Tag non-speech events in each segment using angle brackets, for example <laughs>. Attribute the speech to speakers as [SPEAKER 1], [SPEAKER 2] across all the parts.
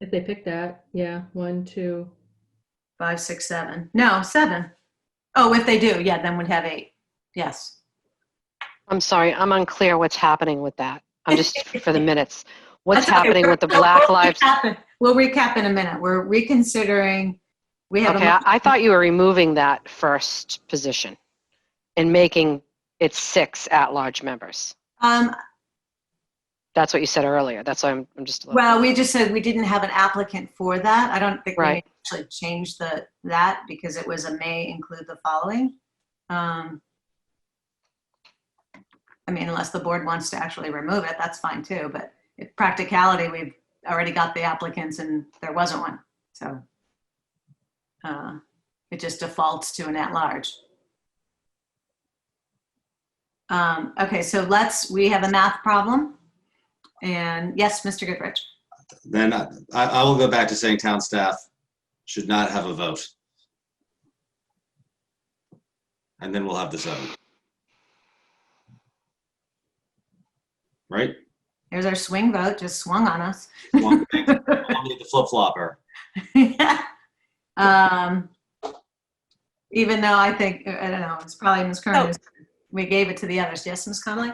[SPEAKER 1] If they pick that, yeah, one, two,
[SPEAKER 2] Five, six, seven. No, seven. Oh, if they do, yeah, then we'd have eight. Yes.
[SPEAKER 3] I'm sorry, I'm unclear what's happening with that.
[SPEAKER 2] <laughs>
[SPEAKER 3] I'm just for the minutes. What's
[SPEAKER 2] That's okay.
[SPEAKER 3] happening with the
[SPEAKER 2] We'll-
[SPEAKER 3] Black
[SPEAKER 2] we'll
[SPEAKER 3] Lives?
[SPEAKER 2] recap in- We'll recap in a minute. We're reconsidering. We have. a
[SPEAKER 3] Okay, I,
[SPEAKER 2] motion.
[SPEAKER 3] I thought you were removing that first position and making it six at-large members.
[SPEAKER 2] Um,
[SPEAKER 3] That's what you said earlier. That's why I'm, I'm just a little.
[SPEAKER 2] well, we just said we didn't have an applicant for that. I don't think we
[SPEAKER 3] Right.
[SPEAKER 2] actually changed the, that because it was a may include the following. Um, I mean, unless the board wants to actually remove it, that's fine too, but if practicality, we've already got the applicants and there wasn't one, so. uh, It just defaults to an at-large. Um, Okay, so let's, we have a math problem. And yes, Mr. Goodrich.
[SPEAKER 4] Then I, I I will go back to saying town staff should not have a vote. And then we'll have the seven. Right?
[SPEAKER 2] There's our swing vote, just swung on us. <laughs>
[SPEAKER 4] One thing, Only the flip flopper.
[SPEAKER 2] um, even though I think, I don't know, it's probably Ms. Curran. who's- We gave it to the others. Yes, Ms. Conley?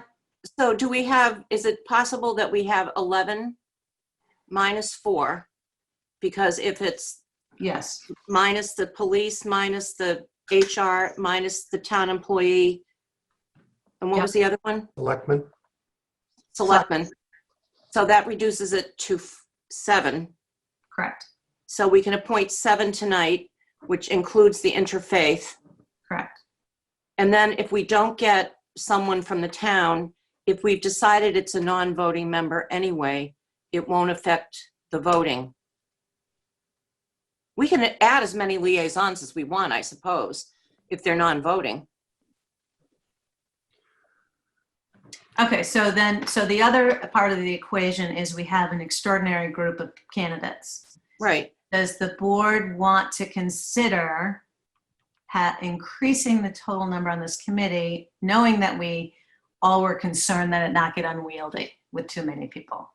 [SPEAKER 5] So do we have, is it possible that we have 11 minus four? Because if it's
[SPEAKER 2] Yes.
[SPEAKER 5] minus the police, minus the HR, minus the town employee, and what was the other one?
[SPEAKER 6] Selectmen?
[SPEAKER 5] Selectmen. So that reduces it to f- seven.
[SPEAKER 2] Correct.
[SPEAKER 5] So we can appoint seven tonight, which includes the interfaith.
[SPEAKER 2] Correct.
[SPEAKER 5] And then if we don't get someone from the town, if we've decided it's a non-voting member anyway, it won't affect the voting. We can add as many liaisons as we want, I suppose, if they're non-voting.
[SPEAKER 2] Okay, so then, so the other part of the equation is we have an extraordinary group of candidates.
[SPEAKER 5] Right.
[SPEAKER 2] Does the board want to consider ha- increasing the total number on this committee, knowing that we all were concerned that it not get unwieldy with too many people?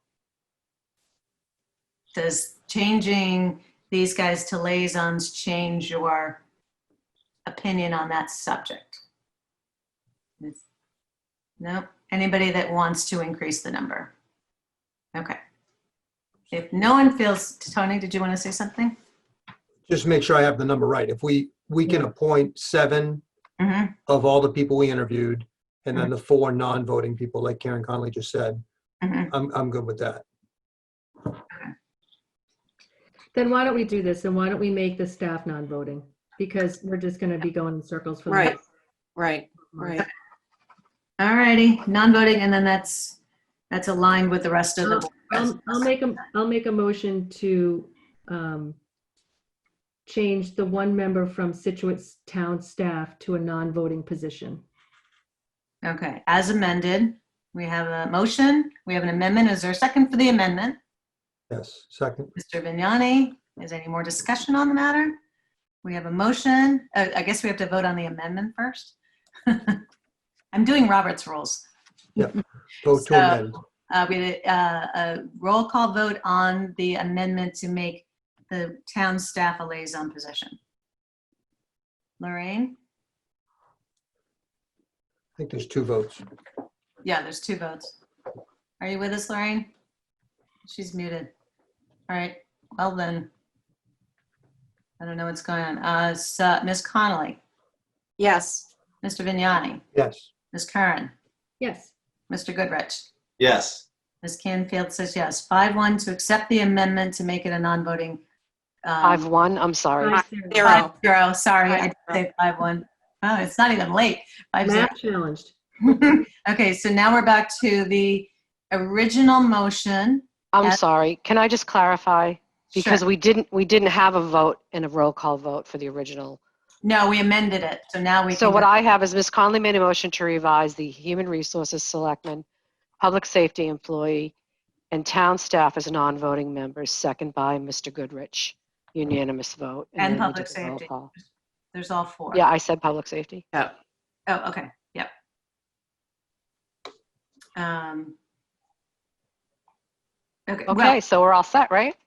[SPEAKER 2] Does changing these guys to liaisons change your opinion on that subject? No, anybody that wants to increase the number? Okay. If no one feels, Tony, did you want to say something?
[SPEAKER 6] Just make sure I have the number right. If we, we can appoint seven
[SPEAKER 2] Mm-hmm.
[SPEAKER 6] of all the people we interviewed, and then the four non-voting people, like Karen Conley just said,
[SPEAKER 2] Mhm.
[SPEAKER 6] I'm, I'm good with that.
[SPEAKER 1] then why don't we do this? And why don't we make the staff non-voting? Because we're just gonna be going in circles for the
[SPEAKER 5] Right.
[SPEAKER 1] next
[SPEAKER 5] Right, right.
[SPEAKER 2] All righty, non-voting, and then that's, that's aligned with the rest of the.
[SPEAKER 1] I'll, I'll make a, I'll make a motion to um, change the one member from Situate Town staff to a non-voting position.
[SPEAKER 2] Okay, as amended, we have a motion, we have an amendment. Is there a second for the amendment?
[SPEAKER 6] Yes, second.
[SPEAKER 2] Mr. Vignani, is there any more discussion on the matter? We have a motion. Uh, I guess we have to vote on the amendment first. <laughs> I'm doing Robert's rules.
[SPEAKER 6] Vote
[SPEAKER 2] So-
[SPEAKER 6] to amend.
[SPEAKER 2] Uh, we had a, uh, a roll call vote on the amendment to make the town staff a liaison position. Lorraine?
[SPEAKER 6] I think there's two votes.
[SPEAKER 2] Yeah, there's two votes. Are you with us, Lorraine? She's muted. All right, well then. I don't know what's going on. Uh, so, Ms. Connolly,
[SPEAKER 5] Yes.
[SPEAKER 2] Mr. Vignani,
[SPEAKER 6] Yes.
[SPEAKER 2] Ms. Curran,
[SPEAKER 1] Yes,
[SPEAKER 2] Mr. Goodrich.
[SPEAKER 4] Yes,
[SPEAKER 2] Ms. Canfield says yes. Five one to accept the amendment to make it a non-voting. um,
[SPEAKER 3] Five one. I'm sorry.
[SPEAKER 1] five zero.
[SPEAKER 5] Zero.
[SPEAKER 2] Five zero, sorry, I did
[SPEAKER 5] Five zero.
[SPEAKER 2] say five one. Oh, it's not even late. Five zero. <laughs>
[SPEAKER 1] Math challenged.
[SPEAKER 2] Okay, so now we're back to the original motion.
[SPEAKER 3] I'm
[SPEAKER 2] Yes.
[SPEAKER 3] sorry. Can I just clarify? Because
[SPEAKER 2] Sure.
[SPEAKER 3] we didn't we didn't have a vote and a roll call vote for the original.
[SPEAKER 2] No, we amended it, so now we.
[SPEAKER 3] So
[SPEAKER 2] can
[SPEAKER 3] what
[SPEAKER 2] go-
[SPEAKER 3] I have is Ms. Conley made a motion to revise the Human Resources Selectman, Public Safety Employee, and Town Staff as non-voting members, second by Mr. Goodrich, unanimous vote.
[SPEAKER 2] And
[SPEAKER 3] then we
[SPEAKER 2] Public
[SPEAKER 3] did the roll
[SPEAKER 2] Safety.
[SPEAKER 3] call.
[SPEAKER 2] There's all four.
[SPEAKER 3] Yeah, I said Public Safety.
[SPEAKER 2] Oh, okay, yep. Um. Okay, well,
[SPEAKER 3] Okay, so we're all set, right?